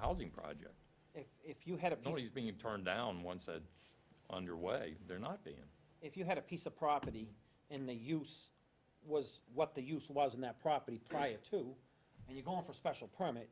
housing project. If, if you had a piece, Nobody's being turned down once that's underway. They're not being. if you had a piece of property and the use was what the use was in that property prior to, and you're going for special permit,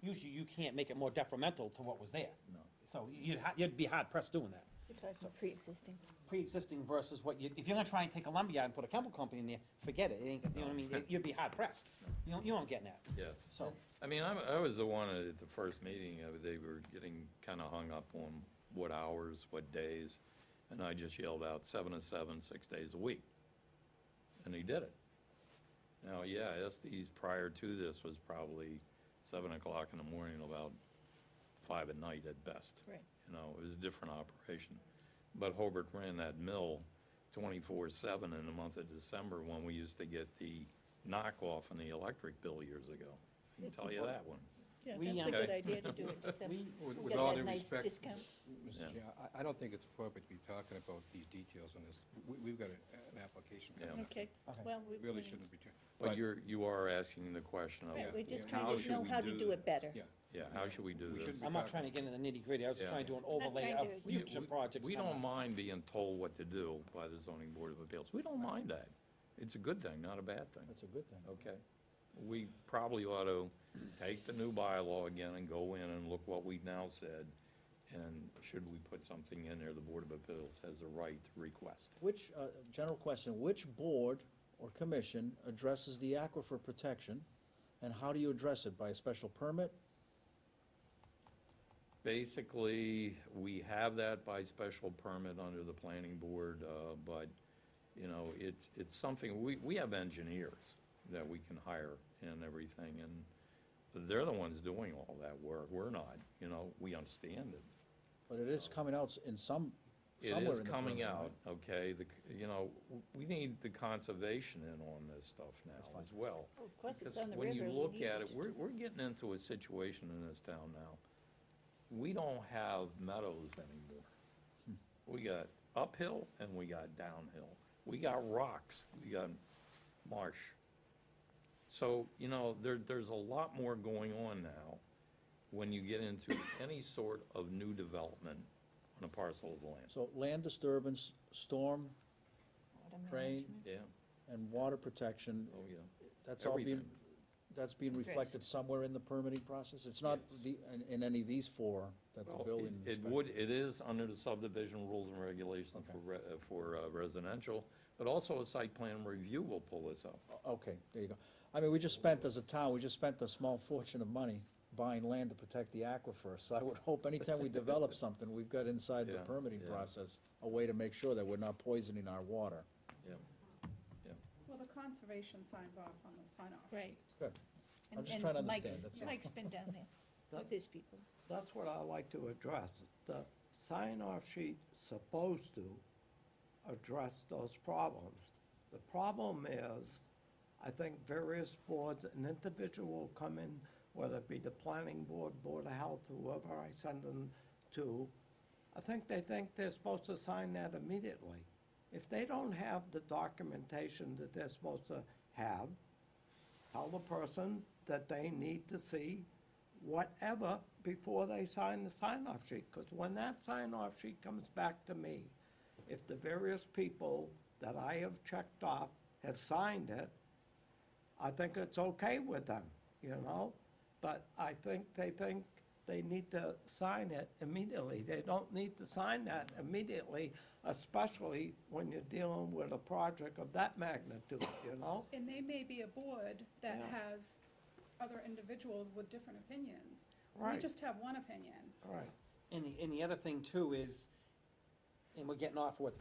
usually you can't make it more detrimental to what was there. No. So you'd, ha- you'd be hard pressed doing that. You're talking pre-existing. Pre-existing versus what you, if you're gonna try and take a lumberyard and put a chemical company in there, forget it, it ain't, you know what I mean, It- you'd be hard pressed. You don't, you don't get that, Yes. so. I mean, I'm- I was the one at the first meeting, uh, they were getting kind of hung up on what hours, what days, and I just yelled out, seven to seven, six days a week. And he did it. Now, yeah, SD's prior to this was probably seven o'clock in the morning, about five at night at best. Right. You know, it was a different operation. But Hobart ran that mill twenty-four seven in the month of December when we used to get the knockoff on the electric bill years ago. I can tell you that one. Yeah, We, that's um, a good idea to do it, just have, We, With get with all that due nice respect, discount. Yeah. Mr. Chair, I, I don't think it's appropriate to be talking about these details on this. We, we've got a- an application. coming Yeah. up. Okay, Okay. well, we. We Really we- shouldn't be doing. But you're, you are asking the question of, Right, we're just Yeah. How trying to should know we how to do do this? it better. Yeah. yeah, how should we do We this? shouldn't be I'm not talking- trying to get into the nitty gritty, I was just Yeah. trying to do an not overlay trying of to- We- future we- projects. We coming don't up. mind being told what to do by the zoning board of appeals. We don't mind that. It's a good thing, not a bad thing. That's a good thing. Okay. We probably ought to take the new bylaw again and go in and look what we've now said. And should we put something in there, the Board of Appeals has a right to request. Which, uh, general question, which board or commission addresses the aquifer protection? And how do you address it? By a special permit? Basically, we have that by special permit under the planning board, uh, but, you know, it's, it's something, we, we have engineers that we can hire and everything, and they're the ones doing all that work. We're not, you know, we understand it. But it is coming out in some, It somewhere is in the coming permit, right? out, okay, the, c- you know, w- we need the conservation in on this stuff now as well. Oh, Of course, it's Because on the river. when you we look need at it, we're, we're getting into a situation in this town now. We don't have meadows anymore. We got uphill and we got downhill. We got rocks, we got marsh. So, you know, there, there's a lot more going on now when you get into any sort of new development on a parcel of land. So land disturbance, storm, Water drain, management. Yeah, and water protection, oh, yeah. that's all being, Everything. that's being reflected somewhere in the permitting process? It's not Yes. the, in, in any of these four that the Well, building it- It inspector- would, it is under the subdivision rules and regulations for, re- uh, for uh, residential, but also a site plan review will pull this up. Okay, there you go. I mean, we just spent, as a town, we just spent a small fortune of money buying land to protect the aquifer, so I would hope anytime we develop something, we've got inside the Yeah, permitting yeah. process, a way to make sure that we're not poisoning our water. Yeah, Well, the conservation signs off on the sign-off. Right. Good. I'm And- just and trying to understand, Mike's- that's all. Mike's been down there with his people. That's what I like to address. The sign-off sheet supposed to address those problems. The problem is, I think various boards, an individual will come in, whether it be the planning board, board of health, whoever I send them to, I think they think they're supposed to sign that immediately. If they don't have the documentation that they're supposed to have, tell the person that they need to see whatever before they sign the sign-off sheet, because when that sign-off sheet comes back to me, if the various people that I have checked off have signed it, I think it's okay with them, you know? But I think they think they need to sign it immediately. They don't need to sign that immediately, especially when you're dealing with a project of that magnitude, you know? And they may be a board that Yeah. has other individuals with different opinions. We Right. just have one opinion. All right. And the, and the other thing too is, and we're getting off with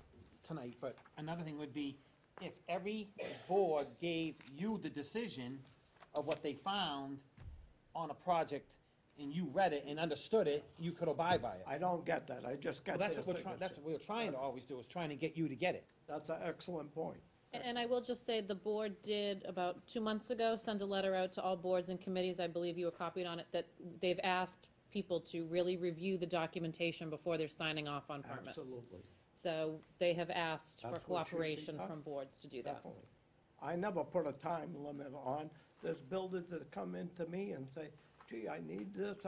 tonight, but another thing would be, if every board gave you the decision of what they found on a project, and you read it and understood it, you could abide by it. I don't get that, I just Well, get their that's what we're signature. trying, that's what we're trying to always do, is trying to get you to get it. That's an excellent point. And- And I will just say, the board did, about two months ago, send a letter out to all boards and committees, I believe you were copied on it, that they've asked people to really review the documentation before they're signing off on permits. Absolutely, So they have asked for That's what should be cooperation done. from boards to do that. definitely. I never put a time limit on, there's builders that come into me and say, gee, I need this,